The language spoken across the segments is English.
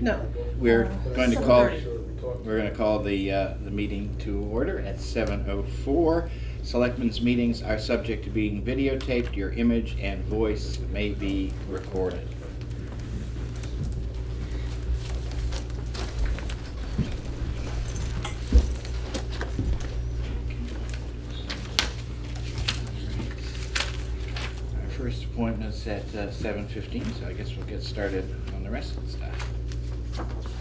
No. We're Uh, going to call, 7:30. we're going to call the, uh, the meeting to order at 7:04. Selectmen's meetings are subject to being videotaped. Your image and voice may be recorded. Our first appointment's at uh, 7:15, so I guess we'll get started on the rest of the stuff.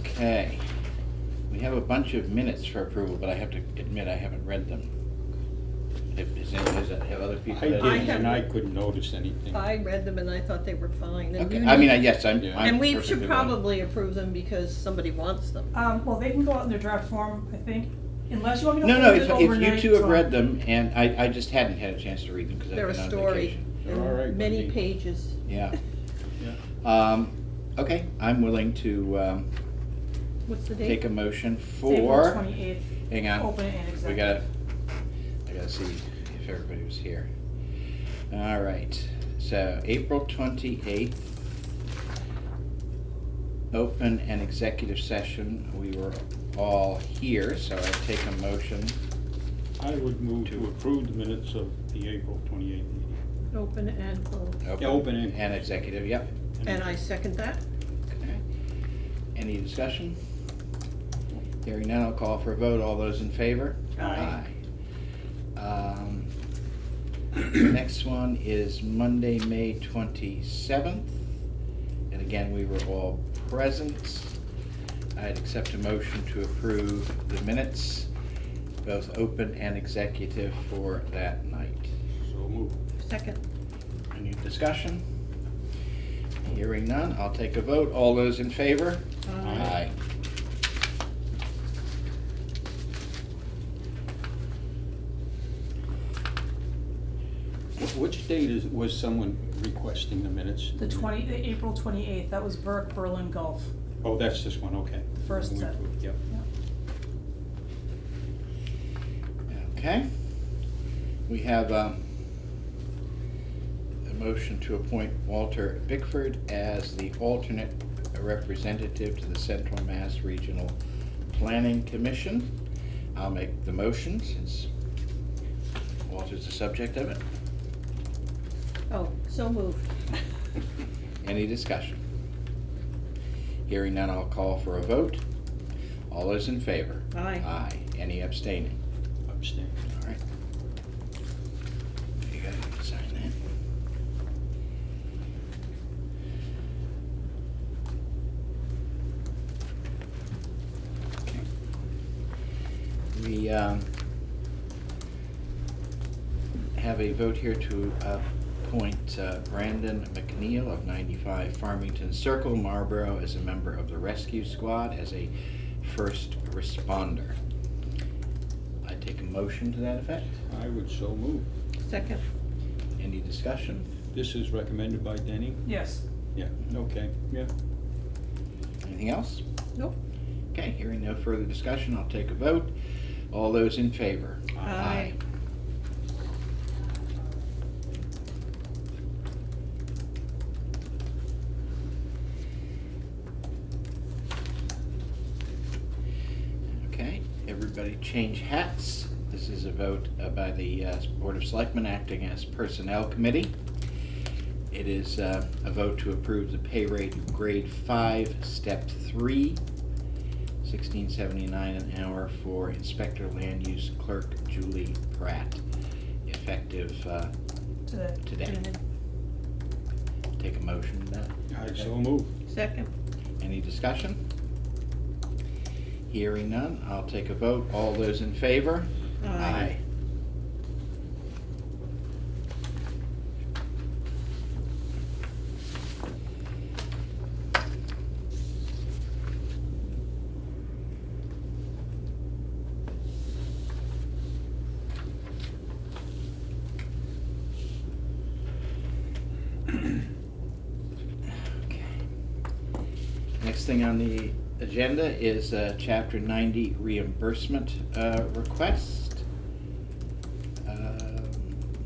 Okay. We have a bunch of minutes for approval, but I have to admit, I haven't read them. Have, is any- has- have other people? I had- didn't, I and I haven't- couldn't notice anything. I read them and I thought they were fine. and Okay, you I mean, need- I- yes, I'm, Yeah. I'm. And we should perfectly willing. probably approve them because somebody wants them. Um, well, they can go out in their draft form, I think, unless you want me to. No, no, approve if, it if you overnight, two have so- read them, and I, I just hadn't had a chance to read them, because I've They're a been on story. vacation. They're all right, and Many Wendy. pages. Yeah. Um, okay, I'm willing to, um, What's the take date? a motion April for, twenty-eighth, hang on. open and exec. We gotta, I gotta see if everybody was here. All right, so April twenty-eighth. Open an executive session. We were all here, so I take a motion. I would move to approve the minutes of the April twenty-eighth meeting. Open and close. open and- And executive, yep. And I second that. Okay. Any discussion? Hearing none, I'll call for a vote. All those in favor? Aye. Aye. Um, Next one is Monday, May twenty-seventh. And again, we were all present. I'd accept a motion to approve the minutes, both open and executive for that night. So move. Second. Any discussion? Hearing none, I'll take a vote. All those in favor? Aye. Wh- Which date is, was someone requesting the minutes? The twenty, the April twenty-eighth, that was Burke, Berlin Gulf. Oh, that's this one, okay. First We set. approve, Yep. Okay. We have um, a motion to appoint Walter Bickford as the alternate representative to the Central Mass Regional Planning Commission. I'll make the motion since Walter's the subject of it. Oh, so moved. Any discussion? Hearing none, I'll call for a vote. All those in favor? Aye. Aye. Any abstaining? Abstain. All right. You gotta sign that. Okay. We, um, have a vote here to appoint uh, Brandon McNeil of ninety-five Farmington Circle, Marlboro, as a member of the rescue squad as a first responder. I take a motion to that effect. I would so move. Second. Any discussion? This is recommended by Denny? Yes, Yeah, okay, yeah. Anything else? Nope. Okay, hearing no further discussion, I'll take a vote. All those in favor? Aye. Okay, everybody change hats. This is a vote uh, by the uh, Board of Selectmen acting as Personnel Committee. It is uh, a vote to approve the pay rate of grade five, step three, sixteen seventy-nine an hour for Inspector Land Use Clerk Julie Pratt, effective uh, today. today. Take a motion to that. I so move. Second. Any discussion? Hearing none, I'll take a vote. All those in favor? Aye. Okay. Next thing on the agenda is uh, Chapter 90 reimbursement uh, requests. Um,